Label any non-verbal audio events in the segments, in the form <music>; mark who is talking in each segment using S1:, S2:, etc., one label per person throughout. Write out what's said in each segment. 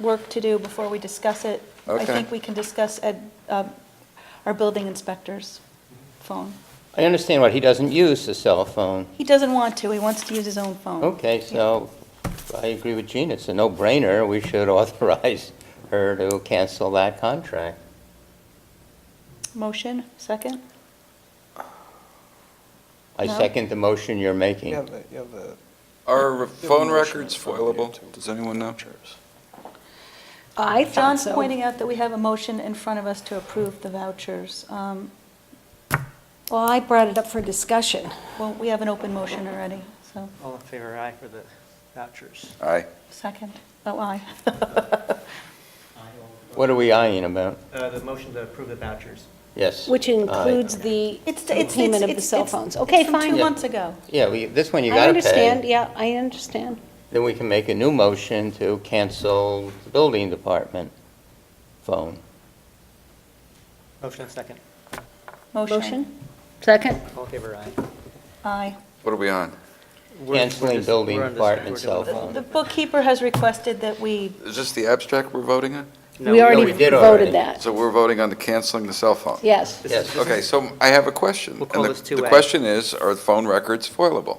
S1: work to do before we discuss it. I
S2: Okay.
S1: think we can discuss ed- um, our building inspector's phone.
S3: I understand what, he doesn't use the cell phone.
S1: He doesn't want to, he wants to use his own phone.
S3: Okay, so I agree with Gina, it's a no-brainer, we should <laughs> authorize her to cancel that contract.
S1: Motion, second?
S3: I
S1: No.
S3: second the motion you're
S4: You
S3: making.
S4: have the, you have the.
S2: Are phone
S4: motion in
S2: records
S4: front of you,
S2: foilable?
S4: too.
S2: Does anyone know?
S5: I thought
S1: John's
S5: so.
S1: pointing out that we have a motion in front of us to approve the vouchers. Um,
S5: Well, I brought it up for discussion.
S1: Well, we have an open motion already, so,
S6: All in favor, aye for the vouchers.
S2: Aye.
S1: second. Oh, aye.
S3: <laughs>
S1: <laughs>
S3: What are we eyeing about?
S6: Uh, The motion to approve the vouchers.
S3: Yes. Uh,
S5: Which
S3: aye.
S5: includes the
S1: It's- it's-
S5: payment of
S1: it's-
S5: the cell
S1: it's-
S5: phones.
S1: it's
S5: Okay,
S1: from two
S5: fine.
S3: Yeah.
S1: months ago.
S3: Yeah, we- this one you
S5: I
S3: gotta pay.
S5: understand, yeah, I understand.
S3: Then we can make a new motion to cancel the building department phone.
S6: Motion and second.
S5: Motion? Second?
S6: All in favor, aye.
S1: Aye.
S2: What are we on?
S6: We're- we're
S3: Canceling
S6: just-
S3: building
S6: we're on this-
S3: department
S6: we're
S3: cell
S6: doing-
S3: phone.
S1: The bookkeeper has requested that we,
S2: Is this the abstract we're voting on?
S6: No,
S5: We already
S3: we did already.
S5: voted that.
S2: So we're voting on the canceling the cell phone?
S5: Yes.
S6: This
S3: Yes.
S6: is- this is-
S2: Okay, so I have a question.
S6: We'll call
S2: And the-
S6: this 2A.
S2: The question is, are the phone records foilable?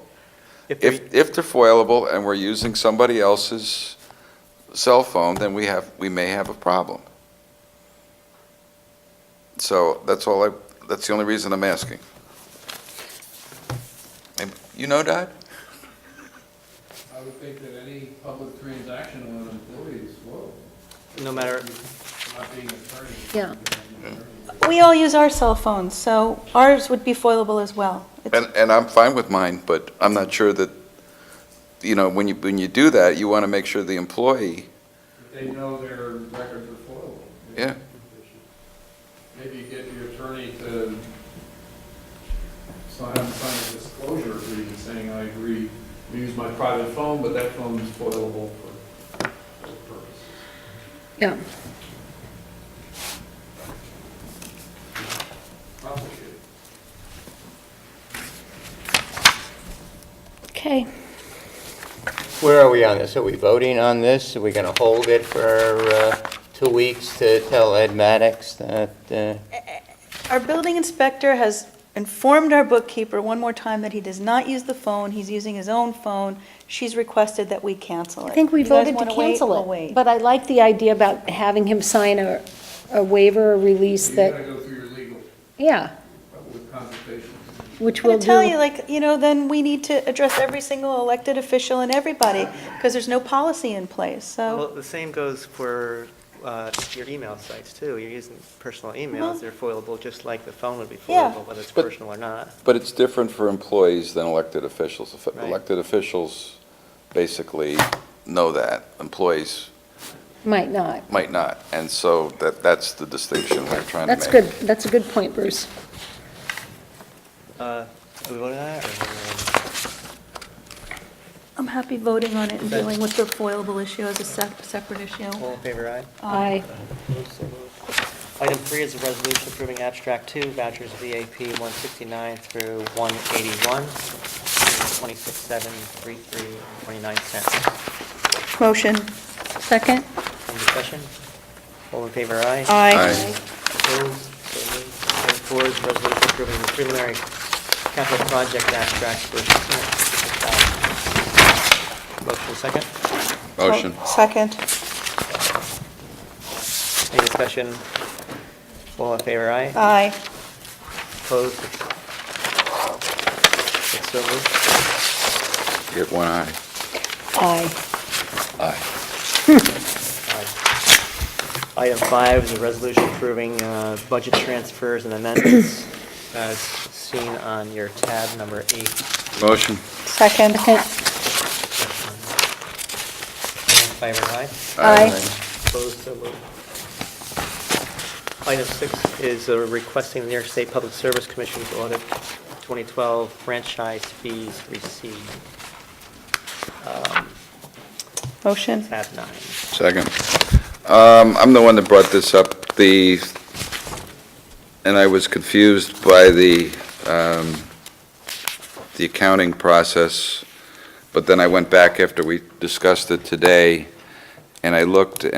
S6: If we-
S2: If, if they're foilable and we're using somebody else's cell phone, then we have, we may have a problem. So that's all I, that's the only reason I'm asking. And You know, Dodd?
S7: I would think that any public transaction on employees, whoa,
S6: No matter,
S7: I'm not being an attorney.
S5: Yeah.
S7: I'm an attorney.
S1: we all use our cell phones, so ours would be foilable as well. It's-
S2: And, and I'm fine with mine, but I'm not sure that, you know, when you, when you do that, you want to make sure the employee,
S7: But They know their records are foiled.
S2: Yeah.
S7: Maybe get your attorney to sign, sign a disclosure agreement saying, I agree, to use my private phone, but that phone is foilable for, for purpose.
S5: Yeah.
S7: Complicated.
S5: Okay.
S3: Where are we on this? Are we voting on this? Are we going to hold it for uh, two weeks to tell Ed Maddox that, uh,
S1: Our building inspector has informed our bookkeeper one more time that he does not use the phone, he's using his own phone. She's requested that we cancel it.
S5: I think we
S1: You guys
S5: voted to
S1: wanna wait? We'll
S5: cancel
S1: wait.
S5: it. But I like the idea about having him sign a, a waiver or release
S7: You gotta
S5: that,
S7: go through your legal,
S5: yeah,
S7: with consultation.
S5: which
S1: I'm
S5: will
S1: gonna
S5: do.
S1: tell you, like, you know, then we need to address every single elected official and everybody, because there's no policy in place,
S6: well,
S1: so.
S6: the same goes for uh, your email sites, too. You're using personal
S1: Well-
S6: emails, they're foilable, just like the phone would be
S1: Yeah.
S6: foilable, whether it's
S2: But-
S6: personal or not.
S2: but it's different for employees than elected officials. If-
S6: Right.
S2: Elected officials basically know that, employees
S5: Might not.
S2: might not. And so that, that's the distinction we're trying to make.
S5: That's good, that's a good point, Bruce.
S6: Uh, Are we voting on that, or?
S1: I'm happy voting on it and
S6: Okay.
S1: dealing with the foilable issue as a sep- separate issue.
S6: All in favor,
S5: I,
S6: aye? Item three is a resolution approving abstract two vouchers VAP 169 through 181, 26,733.29 cents.
S1: Motion.
S5: second?
S6: Any discussion? All in favor, aye?
S2: Aye.
S6: Opposed? So moved. Item four is a resolution approving the preliminary capital project abstract for 650,000. Motion second.
S2: Motion.
S5: Oh.
S1: Second.
S6: Any discussion? All in favor, aye?
S1: Aye.
S6: Opposed? It's so moved.
S2: Get one eye.
S5: Aye.
S2: Aye.
S6: Item five is a resolution approving uh, budget transfers and amendments as seen on your tab number eight.
S2: Motion.
S1: Second.
S6: All in favor, aye? Opposed, so moved. Item six is uh, requesting the New York State Public Service Commission to audit 2012 franchise fees received,
S1: Motion.
S6: tab nine.
S2: Second. Um, I'm the one that brought this up, the, and I was confused by the, um, the accounting process, but then I went back after we discussed it today, and I looked,